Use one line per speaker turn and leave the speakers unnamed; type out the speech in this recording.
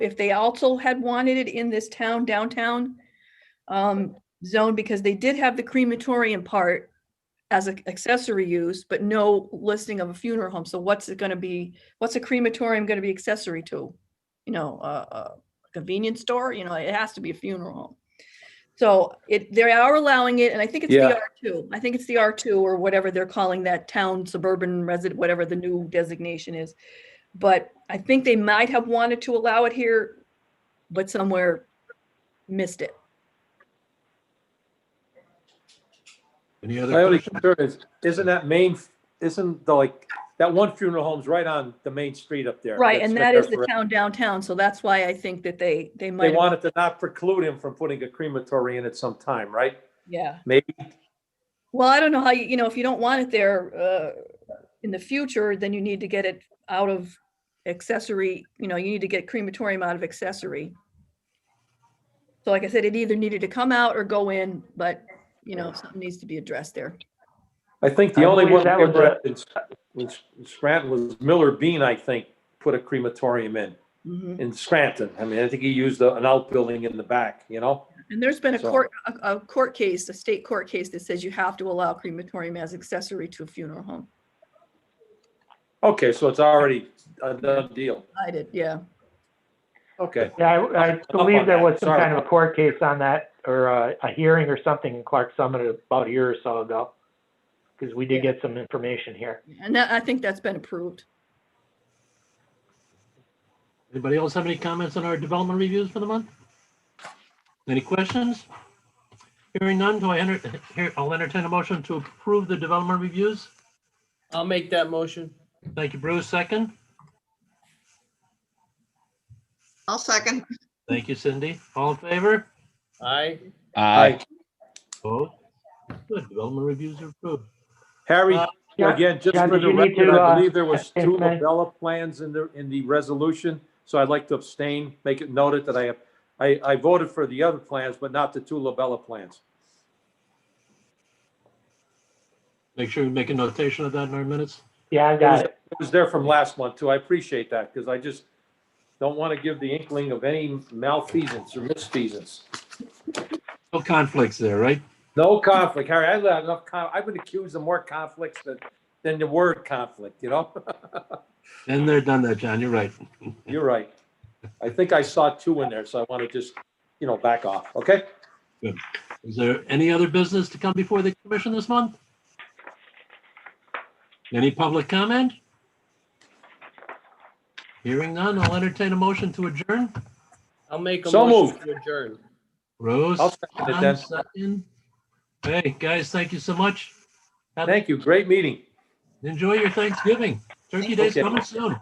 if they also had wanted it in this town downtown um, zone, because they did have the crematorium part as an accessory use, but no listing of a funeral home. So what's it gonna be? What's a crematorium gonna be accessory to? You know, a, a convenience store, you know, it has to be a funeral home. So it, they are allowing it, and I think it's
Yeah.
the R two. I think it's the R two or whatever they're calling that town suburban resident, whatever the new designation is. But I think they might have wanted to allow it here, but somewhere missed it.
Any
My
other
only
questions?
concern is, isn't that main, isn't the, like, that one funeral home's right on the main street up there?
Right,
that's
and
been
that
there
is the
forever.
town downtown, so that's why I think that they, they
They
might, have-
wanted to not preclude him from putting a crematory in at some time, right?
yeah.
Maybe,
Well, I don't know how, you you know, if you don't want it there uh, in the future, then you need to get it out of accessory, you know, you need to get crematorium out of accessory. So like I said, it either needed to come out or go in, but, you know, something needs to be addressed there.
I think the
I
only one
believe that
that
was
ever, in Scra- in Scranton was Miller Bean, I think, put a crematorium in,
Mhm.
in Scranton. I mean, I think he used a- an outbuilding in the back, you know?
And there's been a
So-
court, a a court case, a state court case that says you have to allow crematorium as accessory to a funeral home.
Okay, so it's already a done deal.
I did, yeah.
Okay,
Yeah, I, I believe
on
there
that.
was some
Sorry.
kind of a court case on that, or a, a hearing or something in Clark Summit about a year or so ago. Because we did get some information here.
And that, I think that's been approved.
Anybody else have any comments on our development reviews for the month? Any questions? Hearing none, do I enter, here, I'll entertain a motion to approve the development reviews.
I'll make that motion.
Thank you, Bruce, second.
I'll second.
Thank you, Cindy. All in favor?
Aye.
Aye.
Opposed? Good, development reviews are approved.
Harry,
Uh,
yeah,
again, just
John,
for
did
the
you need
record,
to,
I
uh,
believe there was
yes,
two
ma'am.
Labella plans in the, in the resolution, so I'd like to abstain, make it noted that I have, I, I voted for the other plans, but not the two Labella plans.
Make sure you make a notation of that in our minutes.
Yeah, I got it.
It was there from last month too, I appreciate that, because I just don't want to give the inkling of any malfeasance or misfeasance.
No conflicts there, right?
No conflict, Harry, I've had enough, con- I've been accused of more conflicts than, than the word conflict, you know?
Then they're done that, John, you're right.
You're right. I think I saw two in there, so I want to just, you know, back off, okay?
Is there any other business to come before the commission this month? Any public comment? Hearing none, I'll entertain a motion to adjourn.
I'll make a
So
motion to adjourn.
Rose?
I'll second it
John,
then.
second. Hey, guys, thank you so much.
Thank you, great meeting.
Enjoy your Thanksgiving. Turkey Day's
Okay.
coming soon.